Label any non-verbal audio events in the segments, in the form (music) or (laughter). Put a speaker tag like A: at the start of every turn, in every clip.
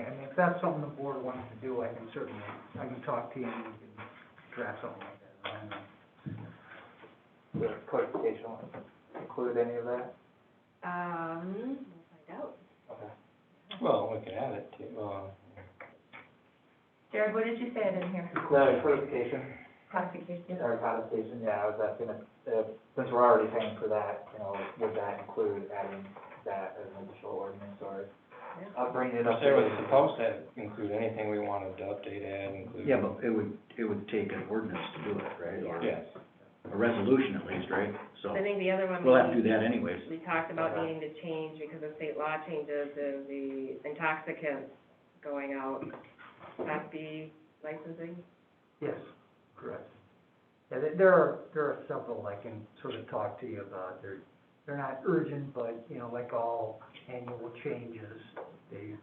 A: if that's something the board wants to do, I can certainly, I can talk to you and we can draft something like that. I don't know.
B: Does codification include any of that?
C: Um, we'll find out.
B: Okay.
D: Well, we could add it to, uh,
C: Jared, what did you say I didn't hear?
B: No, codification,
C: Classification.
B: or codification, yeah, I was asking if, if, since we're already paying for that, you know, would that include adding that as an additional ordinance, or? I'll bring it up.
D: say we're supposed to include anything we wanted to update, add, include.
E: Yeah, but it would, it would take an ordinance to do it, right? Or
D: Yes.
E: A resolution at least, right? So
C: I think the other one.
E: we'll have to
C: we-
E: do that Uh-huh. anyways.
C: We talked about needing to change because of state law changes, is the intoxicants going out, Class B licensing.
A: Yes, correct. Yeah, there- there are, there are several I can sort of talk to you about. They're, they're not urgent, but, you know, like all annual changes, they,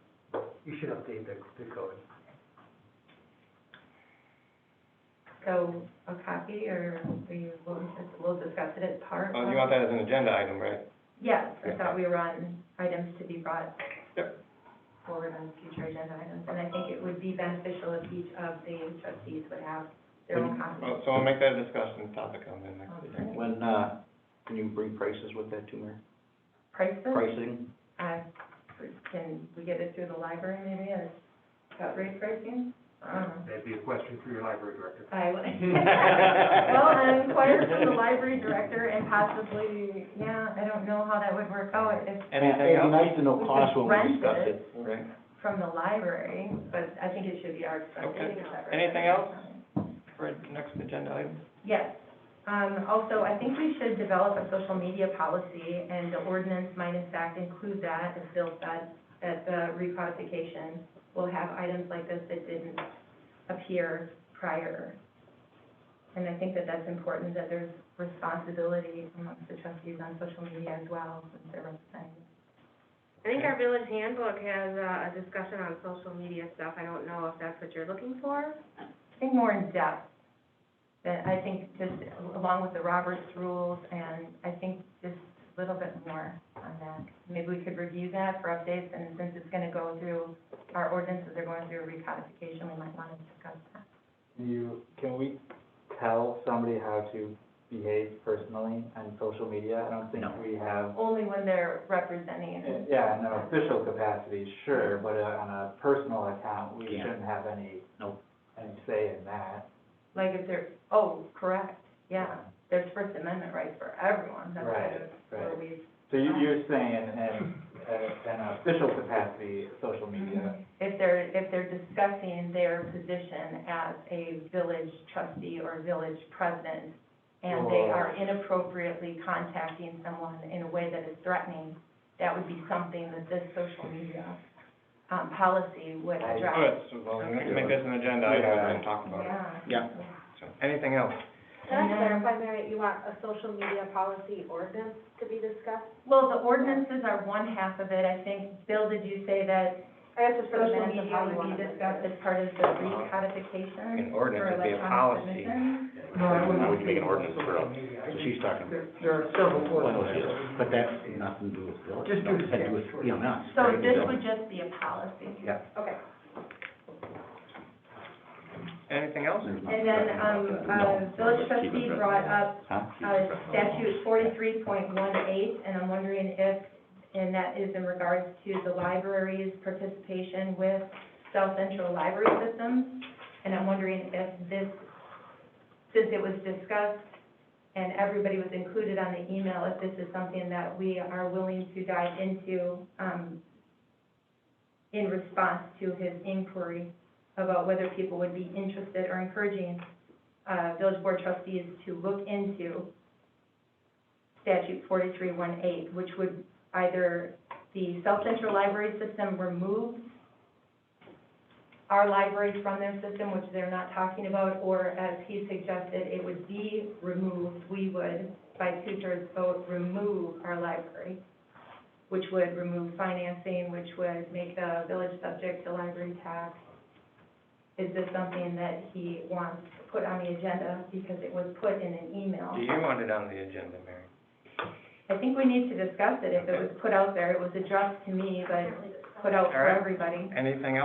A: you should update the, the code.
C: So a copy or we, we'll, we'll discuss it at part?
D: Oh, you want that as an agenda item, right?
C: Yes,
D: I thought
C: we were on items to be brought
D: Yep.
C: forward on future agenda items. And I think it would be beneficial if each of the trustees would have
D: their own
C: copy.
D: Well, Oh, so we'll make that a discussion topic on the next
C: Okay.
D: meeting.
E: When, uh, can you bring prices with that too, Mayor?
C: Price
E: Pricing?
C: Uh, can we get it through the library maybe as cut rate pricing? I don't know.
A: That'd be a question for your library director.
D: (laughs)
C: I would. Well, and inquire from the library director and possibly, yeah, I don't know how that would work Oh, out if
D: Anything else?
E: nice to know
C: We could costs when we rent discuss it.
D: Right.
C: from the library, but I think it should be our expense.
D: Okay. Anything else? For next agenda item?
C: Yes. Um, also, I think we should develop a social media policy, and the ordinance minus act include that, as Bill said, that the recodification will have items like this that didn't appear prior. And I think that that's important, that there's responsibility amongst the trustees on social media as well, since they're representing.
F: I think our village handbook has uh, a discussion on social media stuff. I don't know if that's what you're looking for.
C: I think more in depth, that I think just along with the Roberts rules, and I think just a little bit more on that. Maybe we could review that for updates, and since it's gonna go through, our ordinances are going through recodification, we might wanna discuss that.
B: Do you, can we tell somebody how to behave personally on social media? I don't think
E: No.
B: we have,
C: Only when they're representing
B: uh,
C: it.
B: yeah, in an official capacity, sure, but uh, on a personal account, we
E: Can't.
B: shouldn't have any,
E: Nope.
B: any say in that.
C: Like if they're, oh, correct, yeah, there's First Amendment rights for everyone, that's kind of where
B: Right,
C: we,
B: So you, you're saying in, in an official capacity, social media,
C: Mm-hmm. if they're, if they're discussing their position as a village trustee or village president, and they are inappropriately contacting someone in a way that is threatening, that would be something that this social media, um, policy would
B: I-
D: Oh,
C: address.
D: it's, well, let's make this an agenda item and talk about it.
C: Yeah.
E: Yeah.
D: So, anything else?
F: Can I
C: Yeah.
F: clarify, Mary, you want a social media policy ordinance to be discussed?
C: Well, the ordinances are one half of it, I think. Bill, did you say that
F: I guess it's for the
C: social
F: minutes of
C: media
F: how you
C: would
F: want
C: be
F: it.
C: discussed as part of the recodification
D: An
C: for
D: ordinance would be a
C: electronic
D: policy.
C: submission?
A: No, I wouldn't.
G: I would make an ordinance for us.
A: So
E: So she's talking,
A: There, there are several ordinances.
E: but that's nothing to do with village.
A: Just do
E: No, it had to
A: the
E: do with, you know, us,
C: So
E: right?
C: this would just be a policy.
E: Yeah.
F: Okay.
D: Anything else?
E: There's nothing
C: And then,
E: talking about
C: um,
E: that.
C: uh,
E: No.
C: village
G: Let's keep it
C: trustee
G: right
C: brought up,
E: Huh?
C: uh, statute forty-three point one eight, and I'm wondering if, and that is in regards to the library's participation with South Central Library Systems, and I'm wondering if this, since it was discussed and everybody was included on the email, if this is something that we are willing to dive into, um, in response to his inquiry about whether people would be interested or encouraging uh, village board trustees to look into statute 4318, which would either the South Central Library System removes our library from their system, which they're not talking about, or as he suggested, it would be removed, we would, by two-thirds vote, remove our library, which would remove financing, which would make the village subject to library tax, is this something that he wants to put on the agenda because it was put in an email?
D: Do you want it on the agenda, Mary?
C: I think we need to discuss it. If it was put out there, it was addressed to me, but put out for
D: All right.
C: everybody.
D: Anything else?